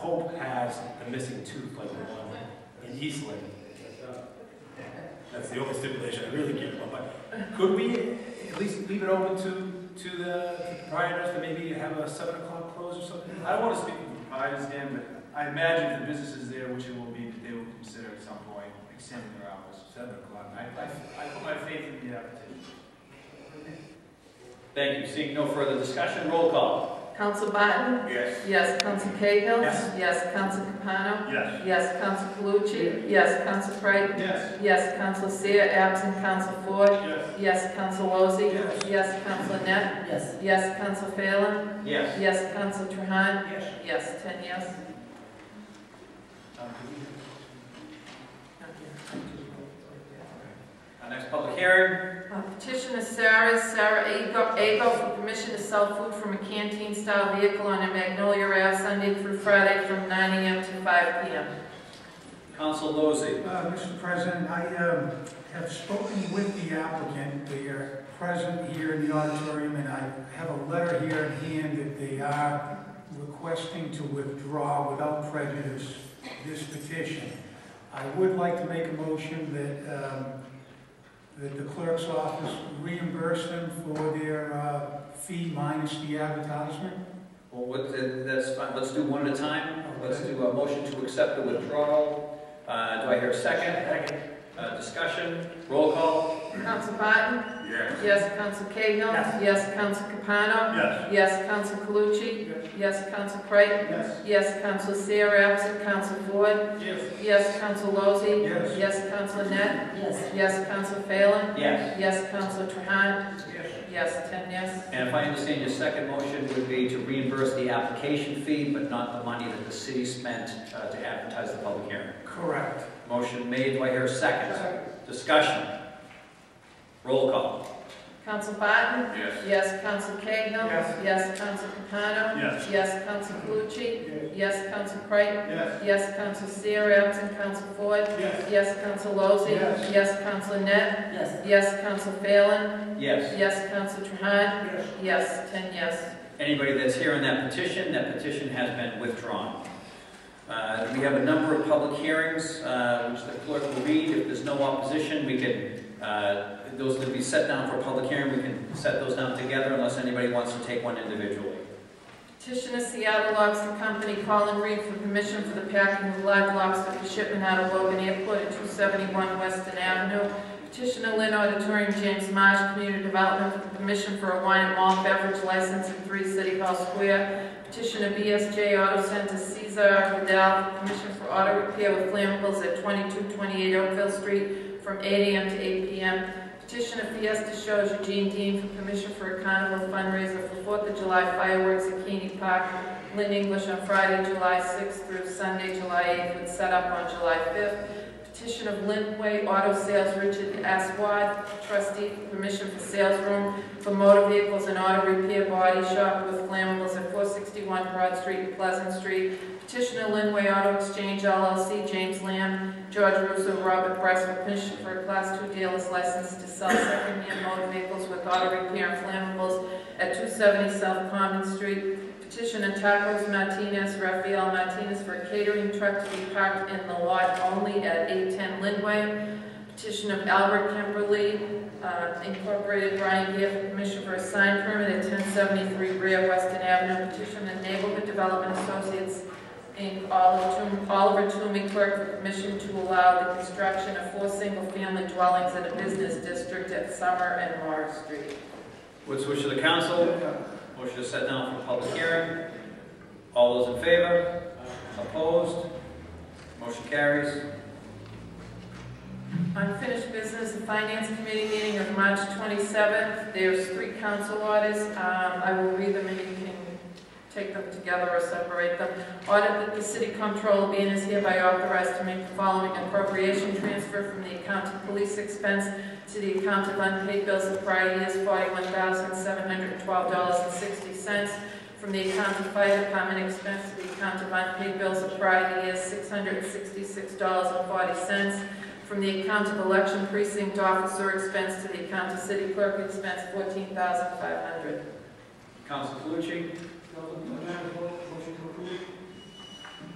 Hope has a missing tooth like the one in Eastland. That's the only stipulation I really care about, but could we at least leave it open to, to the to the proprietors to maybe have a seven o'clock close or something? I don't want to speak for the proprietors, Dan, but I imagine the businesses there, which it will be, that they will consider at some point extending their hours to seven o'clock. I, I, I put my faith in the application. Thank you. Seeing no further discussion, roll call. Council Barton? Yes. Yes. Council Cahill? Yes. Yes. Council Capano? Yes. Yes. Council Calucci? Yes. Council Creighton? Yes. Yes. Council Seer, absent Council Ford? Yes. Yes. Council Lozey? Yes. Yes. Council Net? Yes. Yes. Council Phelan? Yes. Yes. Council Trahan? Yes. Yes. Ten yes. Our next public hearing. Uh, Petition is Sarah, Sarah Ago- Ago for permission to sell food from a canteen-style vehicle on a Magnolia Ave Sunday through Friday from 9 AM to 5 PM. Council Lozey. Uh, Mr. President, I um, have spoken with the applicant. They are present here in the auditorium, and I have a letter here in hand that they are requesting to withdraw without prejudice this petition. I would like to make a motion that, um, that the clerk's office reimburse them for their uh, fee minus the advertisement. Well, what, that- that's fine. Let's do one at a time. Let's do a motion to accept the withdrawal. Uh, do I hear a second? Uh, discussion, roll call. Council Barton? Yes. Yes. Council Cahill? Yes. Yes. Council Capano? Yes. Yes. Council Calucci? Yes. Council Creighton? Yes. Yes. Council Seer, absent Council Ford? Yes. Yes. Council Lozey? Yes. Yes. Council Net? Yes. Yes. Council Phelan? Yes. Yes. Council Trahan? Yes. Yes. Ten yes. And if I understand, your second motion would be to reimburse the application fee, but not the money that the city spent uh, to advertise the public hearing. Correct. Motion made, do I hear a second? Discussion. Roll call. Council Barton? Yes. Yes. Council Cahill? Yes. Yes. Council Capano? Yes. Yes. Council Calucci? Yes. Yes. Council Creighton? Yes. Yes. Council Seer, absent Council Ford? Yes. Yes, Counsel Lozey. Yes. Council Counsel Net. Yes. Yes, Counsel Phelan. Yes. Yes, Counsel Trahan. Yes. Yes, ten yes. Anybody that's here on that petition, that petition has been withdrawn. Uh, We have a number of public hearings, uh, which the clerk will read. If there's no opposition, we can, uh, those that be set down for public hearing, we can set those down together unless anybody wants to take one individually. Petition of Seattle Lobster Company, Colin Reed, for permission for the packing of live lobster for shipment out of Logan Airport at 271 Weston Avenue. Petition of Lynn Auditorium, James Marsh, Community Development, for permission for a wine and malt beverage license in 3 City Hall Square. Petition of BSJ Auto Center, Cesar Vidal, for permission for auto repair with flammables at 2228 Oakville Street from 8 AM to 8 PM. Petition of Fiesta Shows Eugene Dean for permission for a carnival fundraiser for Fourth of July fireworks at Keeney Park, Lynn English on Friday, July 6th through Sunday, July 8th, with setup on July 5th. Petition of Lindway Auto Sales Richard S. Watt, trustee, for permission for sales room for motor vehicles and auto repair body shop with flammables at 461 Broad Street and Pleasant Street. Petition of Lindway Auto Exchange LLC, James Lamb, George Russo, Robert Bryce, for permission for a Class II dealer's license to sell second-hand motor vehicles with auto repair and flammables at 270 South Common Street. Petition of Tacos Martinez, Rafael Martinez, for a catering truck to be parked in the lot only at 810 Lindway. Petition of Albert Kimberly uh, Incorporated, Brian Giff, for permission for a sign permit at 1073 Rear Weston Avenue. Petition of Neighborhood Development Associates, Inc., Oliver Toom- Oliver Toomey, clerk, for permission to allow the construction of four single-family dwellings in a business district at Summer and Morris Street. What's the wish of the council? Motion is set down for public hearing. All those in favor? Opposed? Motion carries. Unfinished business and finance committee meeting of March 27th. There's three council orders. Um, I will read them and you can take them together or separate them. Audit that the city comptroller being is hereby authorized to make the following appropriation transfer from the account of police expense to the account of unpaid bills of prior years, $41,712.60. From the account of fire department expense to the account of unpaid bills of prior years, $666.40 from the account of election precinct officer expense to the account of city clerk expense, fourteen thousand five hundred. Council Calucci?